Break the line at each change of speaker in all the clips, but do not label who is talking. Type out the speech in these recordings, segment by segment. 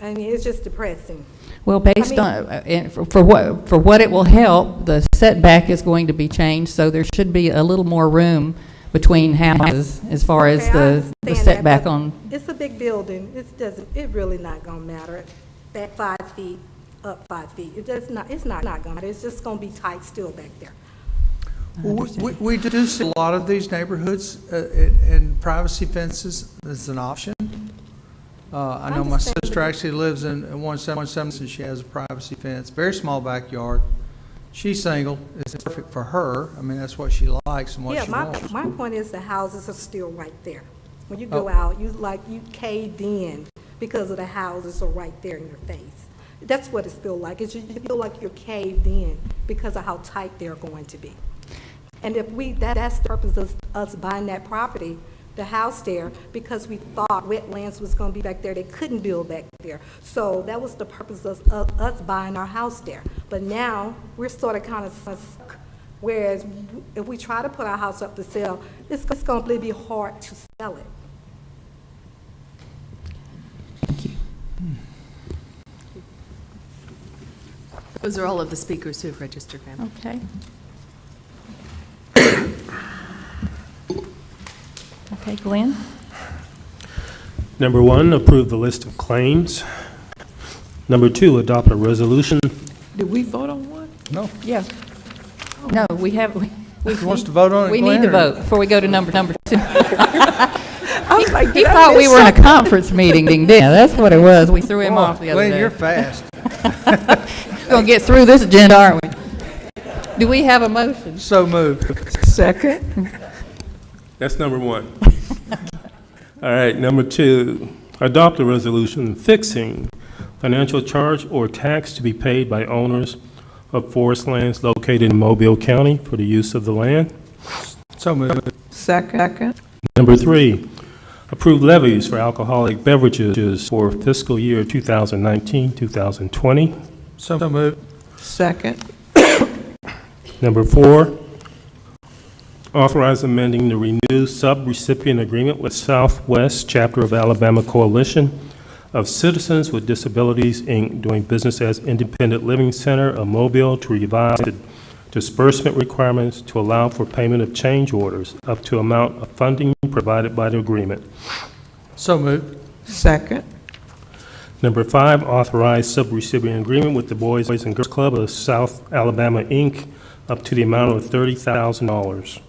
I mean, it's just depressing.
Well, based
mean-
on, uh, and for- for what, for what it will help, the setback is going to be changed, so there should be a little more room between houses as far as
Okay, I
the the
understand that,
setback
but
on,
It's a big building, it doesn't, it really not gonna matter, that five feet, up five feet, it does not, it's not, not gonna, matter. it's just gonna be tight still back there.
We- We we do see a lot of these neighborhoods, uh, and and privacy fences is an option. Uh, I know my
Understand.
sister actually lives in in 171, and she has a privacy fence, very small backyard. She's single, it's perfect for her, I mean, that's what she likes and what
Yeah,
she
my,
wants.
my point is the houses are still right there. When you
Oh.
go out, you like, you caved in because of the houses are right there in your face. That's what it's feel like, is you you feel like you're caved in because of how tight they're going to be. And if we, that, that's the purpose of us buying that property, the house there, because we thought wetlands was gonna be back there, they couldn't build back there. So that was the purpose of, of us buying our house there. But now, we're sort of kind of stuck, whereas if we try to put our house up to sell, it's, it's gonna be hard to sell it.
Those are all of the speakers who have registered, ma'am.
okay. Okay, Glenn?
Number one, approve the list of claims. Number two, adopt a resolution.
Did we vote on one?
No,
Yeah. No, we have, we- we
Who wants to vote on it,
we need to
Glenn, or-
vote before we go to number, number two.
I was like,
He
did I
thought we
miss
were in a conference meeting, didn't he? Yeah, that's what it was. We threw him off the other
Glenn,
day.
you're fast.
We're going to get through this agenda, aren't we? Do we have a motion?
So moved.
something? Second?
That's number one. All right, number two, adopt a resolution fixing financial charge or tax to be paid by owners of forest lands located in Mobile County for the use of the land.
So moved.
Second?
Number three, approve levies for alcoholic beverages for fiscal year 2019, 2020.
So moved.
Second?
Number four, authorize amending the renewed sub-recipient agreement with Southwest Chapter of Alabama Coalition of Citizens with Disabilities, Inc., doing business as Independent Living Center of Mobile to revise the disbursement requirements to allow for payment of change orders up to amount of funding provided by the agreement.
So moved.
Second?
Number five, authorize subrecipient agreement with the Boys and Girls Club of South Alabama, Inc., up to the amount of $30,000.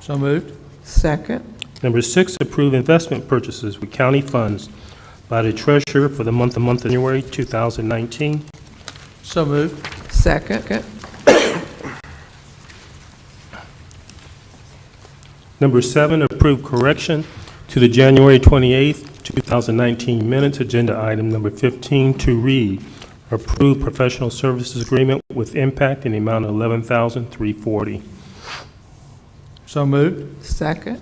So moved.
Second?
Number six, approve investment purchases with county funds by the treasurer for the month of month of January 2019.
So moved.
Second?
Number seven, approve correction to the January 28th, 2019 minutes, agenda item number 15, to read, approve professional services agreement with impact in the amount of 11340
So moved.
Second?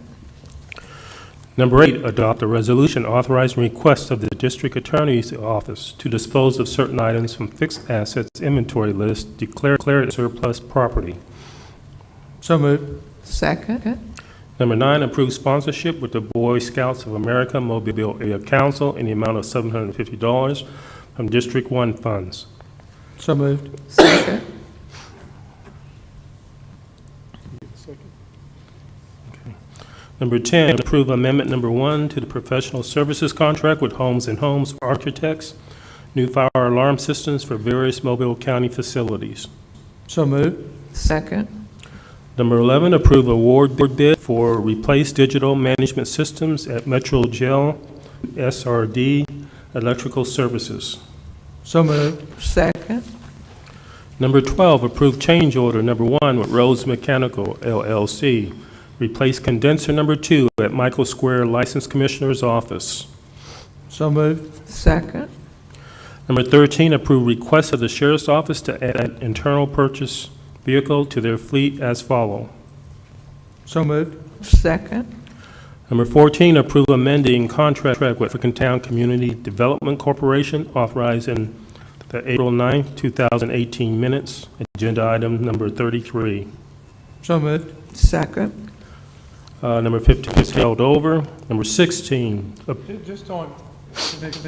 Number eight, adopt a resolution authorizing request of the district attorney's office to dispose of certain items from fixed assets inventory list, declare declare it surplus property.
So moved.
Second?
Number nine, approve sponsorship with the Boy Scouts of America Mobile Area Council in the amount of $750 from District One funds.
So moved.
Second?
Number 10, approve amendment number one to the professional services contract with Homes and Homes Architects, new fire alarm systems for various Mobile County facilities.
So moved.
Second?
Number 11, approve award bid for replace digital management systems at Metro Gel SRD Electrical Services.
So moved.
Second?
Number 12, approve change order number one with Rhodes Mechanical LLC. Replace condenser number two at Michael Square License Commissioner's Office.
So moved.
Second?
Number 13, approve request of the Sheriff's Office to add internal purchase vehicle to their fleet as follow.
So moved.
Second?
Number 14, approve amending contract with African Town Community Development Corporation authorizing the April 9, 2018 minutes, agenda item number 33.
So moved.
Second?
Uh, Number 15 is held over. Number 16,
Just on,